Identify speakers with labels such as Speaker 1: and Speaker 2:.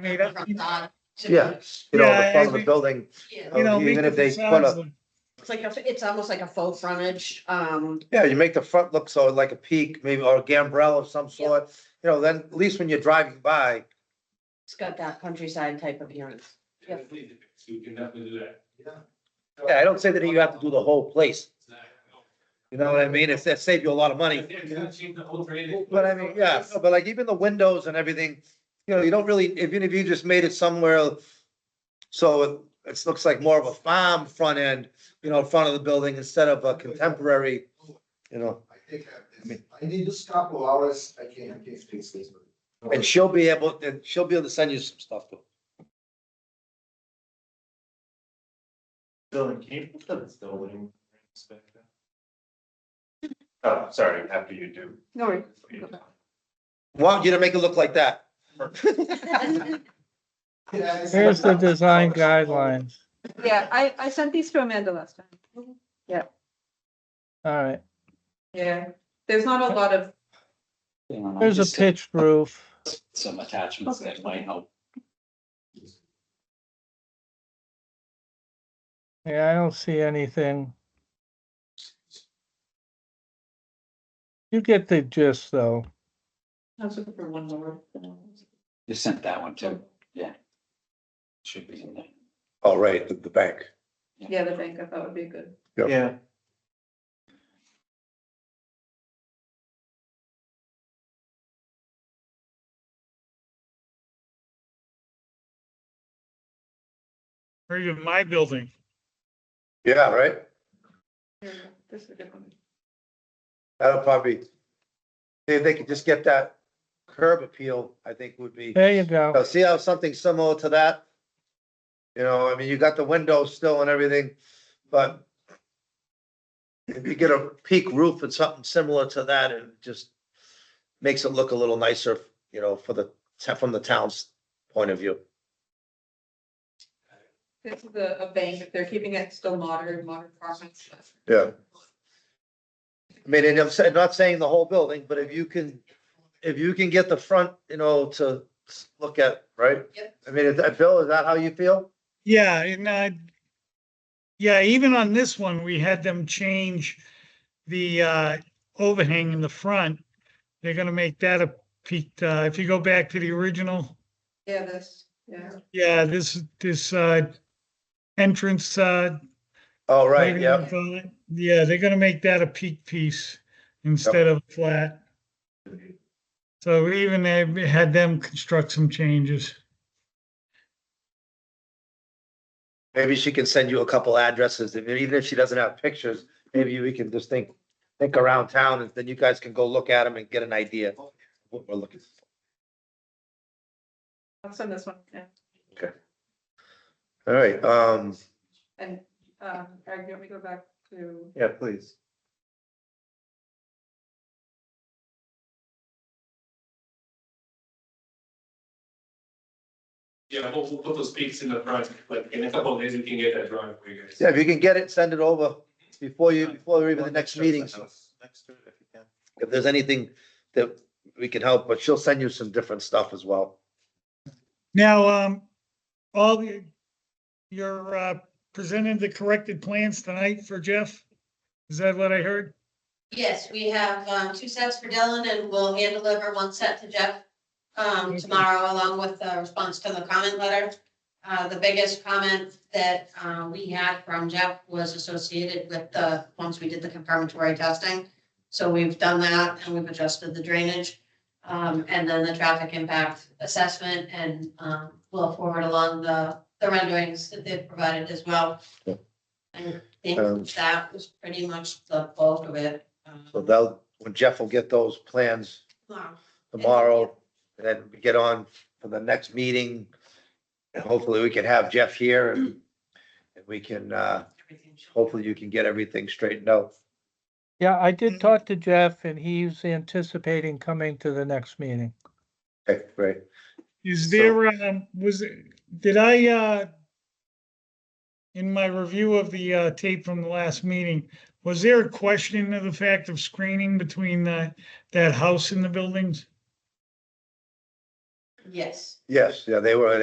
Speaker 1: mean, that- you know,
Speaker 2: Yeah, you know,
Speaker 1: Yeah,
Speaker 2: the front of
Speaker 1: we-
Speaker 2: the building,
Speaker 3: Yeah,
Speaker 1: you know,
Speaker 2: Even
Speaker 1: make
Speaker 2: if
Speaker 1: the
Speaker 2: they
Speaker 1: facades
Speaker 2: put
Speaker 1: look-
Speaker 3: it's like, a- it's almost like a faux frontage, um,
Speaker 2: yeah, you make the front look so like a peak, maybe, or a gambrel of some sort. You know, then at least when you're driving by,
Speaker 3: it's got that countryside type of appearance.
Speaker 4: So you can definitely do that.
Speaker 2: yeah, I don't say that you have to do the whole place, you know what I mean? It's, that saved you a lot of money. But I mean, yeah, no, but like even the windows and everything, you know, you don't really, even if you just made it somewhere. So it, it looks like more of a farm front end, you know, front of the building instead of a contemporary, you know.
Speaker 5: I think I,
Speaker 2: I mean-
Speaker 5: I need just a couple hours, I can, I can fix this.
Speaker 2: And she'll be able, and she'll be able to send you some stuff too.
Speaker 4: Building came from this building. Oh, sorry, after you do.
Speaker 3: No worries.
Speaker 2: Want you to make it look like that.
Speaker 5: Yeah, it's-
Speaker 1: Here's the design guidelines.
Speaker 6: Yeah, I, I sent these to Amanda last time.
Speaker 1: All right,
Speaker 6: Yeah. There's not a lot of,
Speaker 7: thing on. I
Speaker 1: there's a
Speaker 7: just
Speaker 1: pitched roof.
Speaker 7: sent Some attachments that might help.
Speaker 1: Yeah, I don't see anything. You get the gist, though.
Speaker 3: I was looking for one more.
Speaker 7: You sent that one too. Yeah. Should be in there.
Speaker 2: Oh, right, the, the bank.
Speaker 6: yeah, the bank, I thought would be good.
Speaker 4: Yeah.
Speaker 1: Or even my building.
Speaker 2: Yeah, right?
Speaker 6: Here we go. This is a good one.
Speaker 2: That'll probably, if they could just get that curb appeal, I think would be.
Speaker 1: There you go.
Speaker 2: Now, see how something similar to that? You know, I mean, you got the windows still and everything, but if you get a peak roof and something similar to that, it just makes it look a little nicer, you know, for the, from the town's point of view.
Speaker 6: This is a, a bank, if they're keeping it still modern, modern apartments.
Speaker 2: Yeah. I mean, and I'm saying, not saying the whole building, but if you can, if you can get the front, you know, to s- look at, right?
Speaker 3: Yep.
Speaker 2: I mean, is that, Bill, is that how you feel?
Speaker 1: Yeah, and I, yeah, even on this one, we had them change the uh, overhang in the front. They're gonna make that a peaked, uh, if you go back to the original,
Speaker 6: Yeah, this, yeah.
Speaker 1: yeah, this, this uh, entrance, uh,
Speaker 2: Oh, right,
Speaker 1: Maybe
Speaker 2: yeah.
Speaker 1: they'll call it- Yeah, they're gonna make that a peak piece instead of flat. So even they had them construct some changes.
Speaker 2: Maybe she can send you a couple addresses, if- even if she doesn't have pictures, maybe we can just think, think around town, and then you guys can go look at them and get an idea of what we're looking for.
Speaker 6: I'll send this one, yeah.
Speaker 2: All right, um,
Speaker 6: And, um, Eric, you want me to go back to,
Speaker 2: yeah, please.
Speaker 4: Yeah, we'll, we'll put those peaks in the front, like in a couple of days, we can get that drawing for you guys.
Speaker 2: Yeah, if you can get it, send it over before you, before even the next meeting, so
Speaker 4: Next to it, if you can.
Speaker 2: if there's anything that we can help, but she'll send you some different stuff as well.
Speaker 1: Now, um, all the, you're, uh, presenting the corrected plans tonight for Jeff? Is that what I heard?
Speaker 3: Yes, we have, um, two sets for Dylan and we'll hand deliver one set to Jeff, um, tomorrow along with the response to the comment letter. Uh, the biggest comment that, uh, we had from Jeff was associated with the, once we did the confirmatory testing. So we've done that and we've adjusted the drainage, um, and then the traffic impact assessment and, um, we'll forward along the, the renderings that they've provided as well.
Speaker 2: Yeah.
Speaker 3: I
Speaker 2: Um,
Speaker 3: think that was pretty much the bulk of it. um,
Speaker 2: So they'll, when Jeff will get those plans
Speaker 3: Wow.
Speaker 2: tomorrow, and then we get on for the next meeting. And hopefully we can have Jeff here and, and we can, uh,
Speaker 3: Everything should-
Speaker 2: hopefully you can get everything straightened out.
Speaker 1: Yeah, I did talk to Jeff and he's anticipating coming to the next meeting.
Speaker 2: Okay, great.
Speaker 1: Is
Speaker 2: So-
Speaker 1: there, um, was, it- did I, uh, in my review of the, uh, tape from the last meeting, was there a question of the fact of uh, screening between that, that house and the buildings?
Speaker 3: Yes.
Speaker 2: Yes, yeah, they were,